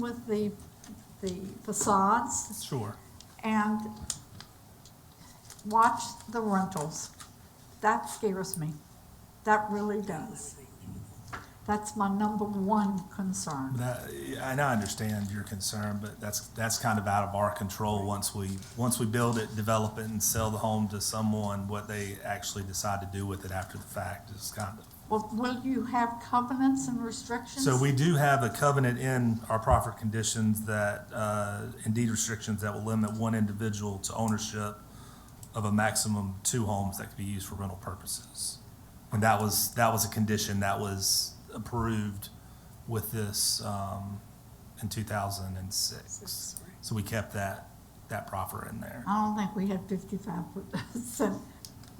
with the, the facades Sure. and watch the rentals. That scares me. That really does. That's my number one concern. That, and I understand your concern, but that's, that's kind of out of our control. Once we, once we build it, develop it, and sell the home to someone, what they actually decide to do with it after the fact is kind of. Well, will you have covenants and restrictions? So we do have a covenant in our profit conditions that, uh, indeed restrictions that will limit one individual to ownership of a maximum two homes that could be used for rental purposes. And that was, that was a condition that was approved with this, um, in two thousand and six. So we kept that, that proffer in there. I don't think we had fifty-five percent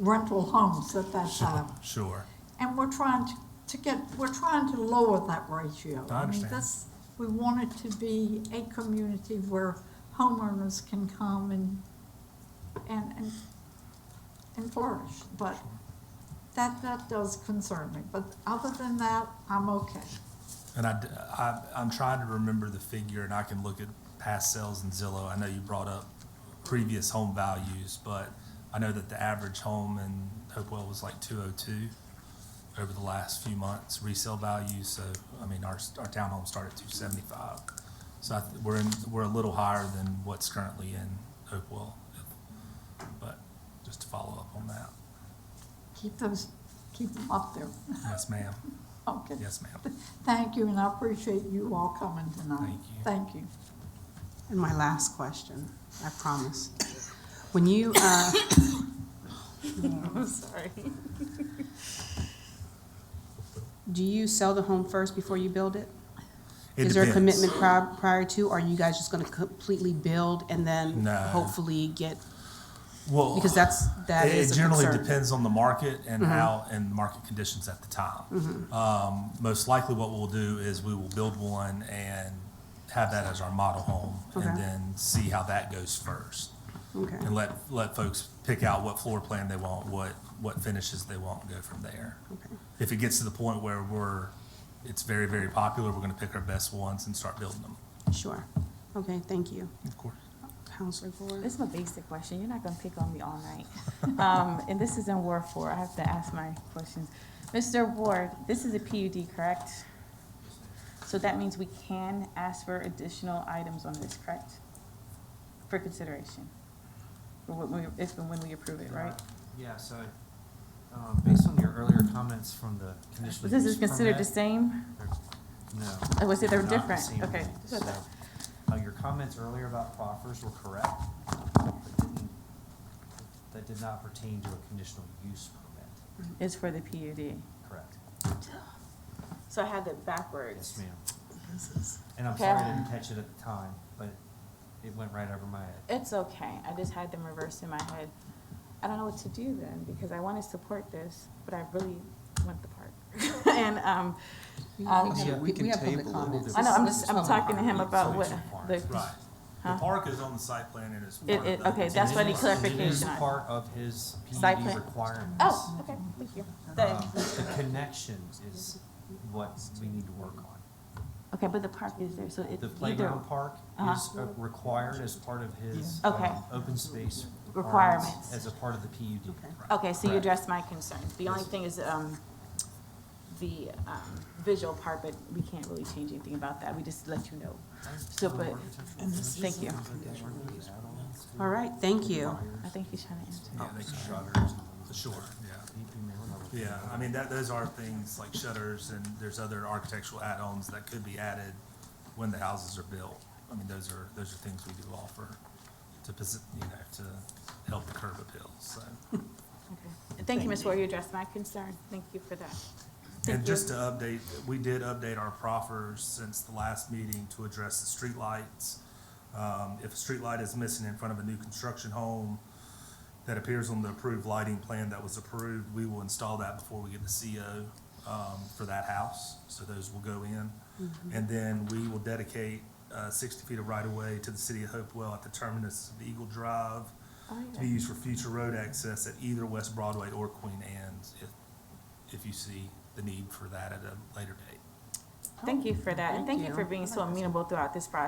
rental homes at that time. Sure. And we're trying to, to get, we're trying to lower that ratio. I mean, understand. this, we want it to be a community where homeowners can come and, and, and, and flourish. But that, that does concern me, but other than that, I'm okay. And I, d- I, am trying to remember the figure, and I can look at past sales in Zillow. I know you brought up previous home values, but I know that the average home in Hopewell was like two oh two over the last few months resale value. So, I mean, our, our townhome started at two seventy-five. So I, th- we're in, we're a little higher than what's currently in Hopewell. But just to follow up on that, Keep those, keep them up there. yes, ma'am. Okay. Yes, ma'am. Thank you, and I appreciate you all coming tonight. Thank you. Thank you. And my last question, I promise. When you, uh, I'm sorry. do you sell the home first before you build it? It Is there a depends. commitment prior, prior to, or are you guys just gonna completely build and then No. hopefully get, Well. because that's, that It- is It a generally concern. depends on the market Mm-hmm. and how, and market conditions at the time. Um, Most likely what we'll do is we will build one and have that as our model home and Okay. then see how that goes first. Okay. And let, let folks pick out what floor plan they want, what, what finishes they want and go from there. Okay. If it gets to the point where we're, it's very, very popular, we're gonna pick our best ones and start building them. Sure. Okay, thank you. Of course. Counselor Gore. This is my basic question. You're not gonna pick on me all night. Um, and this is in Ward Four. I have to ask my questions. Mr. Ward, this is a PUD, correct? So that means we can ask for additional items on this, correct? For consideration? For when we, if and when we approve it, right? Uh, Yeah, so, um, based on your earlier comments from the conditional But use This is considered the permit- same? No. Oh, was it they're not the different? same Okay. thing. So, uh, your comments earlier about proffers were correct, but didn't, that did not pertain to a conditional use permit, It's for the PUD. correct? So I had that backwards. Yes, ma'am. And I'm Okay. sorry I didn't catch it at the time, but it went right over my head. It's okay. I just had them reversed in my head. I don't know what to do then because I want to support this, but I really want the park. and um, um, have- Yeah, we can have public table it. We'll comments. do I know I'm just I'm Public talking to him about So what it's a park. the Right. The Huh? park is on the site plan and it's. It- part of it- the- okay, it's that's in what the he park. clarified. It is clarification. part of his Site PUD plan. requirements. oh okay thank you. The- Um, The connections is what we need to work on. okay, but the park is there, so it The either playground park is Uh-huh. uh, required as part of his Yeah. Okay. um, open space Requirements. requirements as a part of the PUD. Okay, so you Correct. addressed my concerns. The only Yes. thing is, um, the, um, visual part, but we can't really change anything about that. We just let you know. So, but, thank you. All right, thank you. I think he's trying to answer. Yeah, they can shutters. Sure, yeah. Yeah, I mean, that, those are things like shutters and there's other architectural add-ons that could be added when the houses are built. I mean, those are, those are things we do offer to, posi- you know, to help curb appeals, so. Okay. Thank you, Ms. Ward, you addressed my concern. Thank you for that. And just to update, we did update our proffers since the last meeting to address the streetlights. Um, if a streetlight is missing in front of a new construction home that appears on the approved lighting plan that was approved, we will install that before we get the CO, um, for that house. So those will go in. And then we will dedicate, uh, sixty feet of right-of-way to the city of Hopewell at the terminus of Eagle Drive to be used for future road access at either West Broadway or Queen Anne's if, if you see the need for that at a later date. Thank you for that, and Thank thank you you. for being so amenable throughout this process.